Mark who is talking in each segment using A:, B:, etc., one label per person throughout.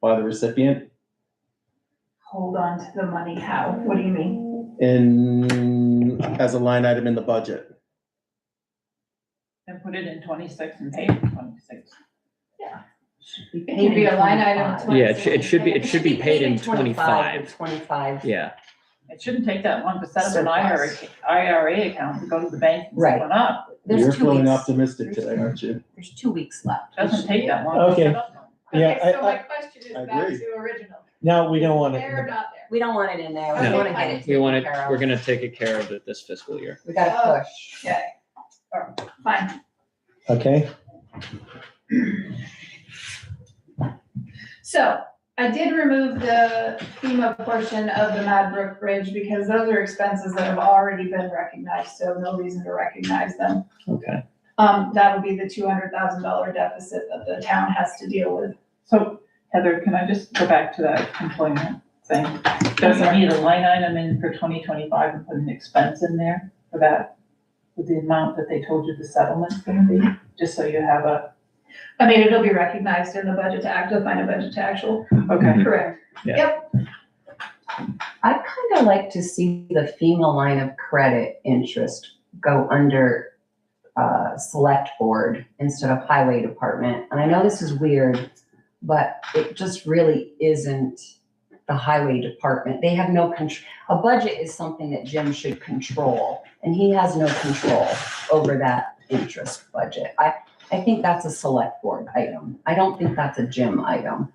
A: by the recipient
B: Hold on to the money, how? What do you mean?
A: in, as a line item in the budget.
C: And put it in twenty-six and pay for twenty-six.
B: It could be a line item in
D: Yeah, it
B: 26.
D: should, it should be, it should be paid in twenty-five,
E: Twenty-five.
D: yeah,
C: It shouldn't take that one percent of an IRA,
E: Surplus.
C: IRA account to go to the bank and set
E: Right.
C: one up.
A: You're
E: There's two
A: feeling
E: weeks,
A: optimistic today, aren't you?
E: there's two weeks left.
C: Doesn't take that one.
F: Okay.
C: percent up.
F: Yeah,
B: Okay,
F: I-
B: so my question is
A: I
B: back
A: agree.
B: to original.
F: No, we don't want
B: There or
F: it.
B: not there?
E: We don't want it in there. We
D: No.
E: wanna get it
D: we want
E: taken
D: it,
E: care
D: we're
E: of.
D: gonna take it care of it this fiscal year.
E: We gotta push.
B: Okay. All right, Fine.
F: Okay,
B: So I did remove the FEMA portion of the Madbrook Bridge because those are expenses that have already been recognized, so no reason to recognize them.
D: Okay.
B: Um, that'll be the two hundred thousand dollar deficit that the town has to deal with.
C: So Heather, can I just go back to that employment thing? Does it need a line item in for twenty twenty-five and put an expense in there for that? With the amount that they told you the settlement's gonna be, just so you have a,
B: I mean, it'll be recognized in the budget to act, define a budget to actual,
C: okay,
B: correct?
E: I'd kinda like to see the FEMA line of credit interest go under, uh, select board instead of highway department. And I know this is weird, but it just really isn't the highway department. They have no control. A budget is something that Jim should control, and he has no control over that interest budget. I, I think that's a select board item. I don't think that's a Jim item.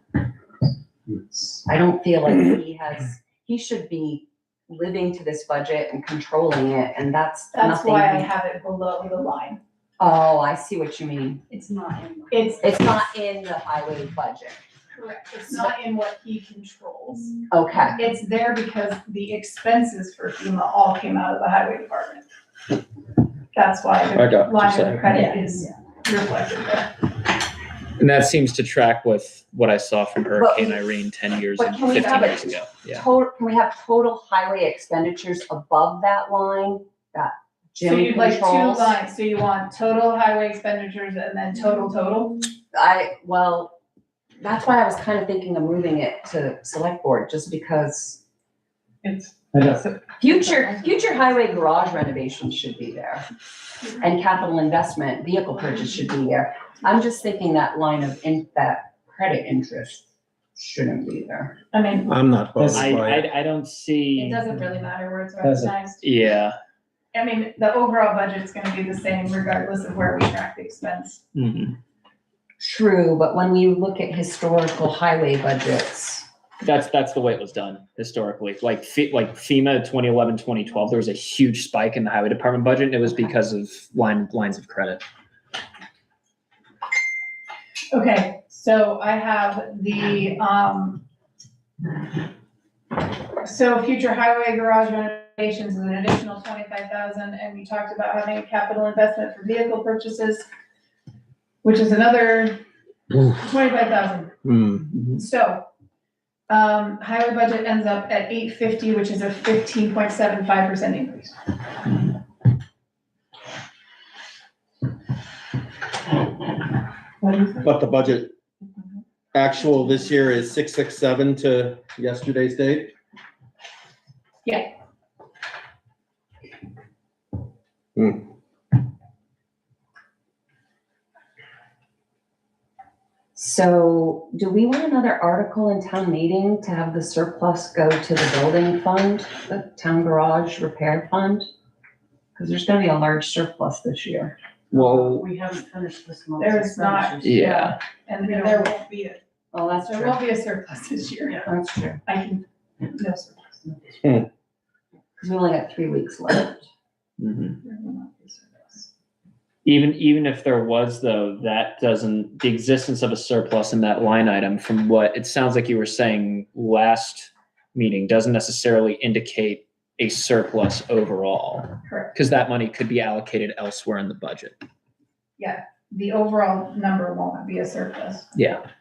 E: I don't feel like he has, he should be living to this budget and controlling it, and that's
B: That's why I
E: nothing.
B: have it below the line.
E: Oh, I see what you mean.
G: It's not in.
B: It's
E: It's not in the highway budget.
B: correct, it's not in what he controls.
E: Okay,
B: It's there because the expenses for FEMA all came out of the highway department. That's why
D: I got what
B: the
D: you're
B: line
D: saying.
B: of credit is reflected there.
D: And that seems to track with what I saw from Hurricane
E: we-
D: Irene ten years
E: but
D: and
E: can we
D: fifteen
E: have it-
D: years ago, yeah.
E: total, can we have total highway expenditures above that line that
B: So
E: Jim
B: you'd like two
E: controls?
B: lines, so you want total highway expenditures and then total total?
E: I, well, that's why I was kind of thinking of moving it to select board, just because
C: it's.
F: I know.
E: future, future highway garage renovations should be there. And capital investment, vehicle purchase should be there. I'm just thinking that line of, in, that credit interest shouldn't be there.
B: I mean,
A: I'm not bothered
D: I,
A: by it.
D: I, I don't
B: it
D: see,
B: doesn't really matter where it's
F: Doesn't.
B: recognized.
D: yeah,
B: I mean, the overall budget's gonna be the same regardless of where we track the expense.
D: mhm.
E: True, but when you look at historical highway budgets,
D: that's, that's the way it was done historically, like Fe- like FEMA 2011-2012. there was a huge spike in the highway department budget, and it was because of line, lines of credit.
B: Okay, so I have the, um, so future highway garage renovations is an additional twenty-five thousand, and we talked about having a capital investment for vehicle purchases, which is another
A: Oof.
B: twenty-five thousand.
A: Hmm.
B: So, um, highway budget ends up at eight fifty, which is a fifteen point seven five percent increase.
A: But the budget actual this year is six, six, seven to yesterday's date?
B: Yeah.
A: Hmm.
E: So do we want another article in town meeting to have the surplus go to the building fund, the town garage repair fund? Because there's gonna be a large surplus this year.
D: Well,
G: We haven't finished this month.
B: There is not.
D: Yeah.
B: And there won't be, a
E: Well, that's
B: there
E: true.
B: won't be a surplus this year.
E: That's true.
B: I can, no surplus.
E: Because we only got three weeks left.
D: mhm.
B: There will not be a surplus.
D: Even, even if there was though, that doesn't, the existence of a surplus in that line item from what it sounds like you were saying last meeting doesn't necessarily indicate a surplus overall.
B: Correct.
D: Because that money could be allocated elsewhere in the budget.
B: the overall number won't be a surplus.
D: Yeah.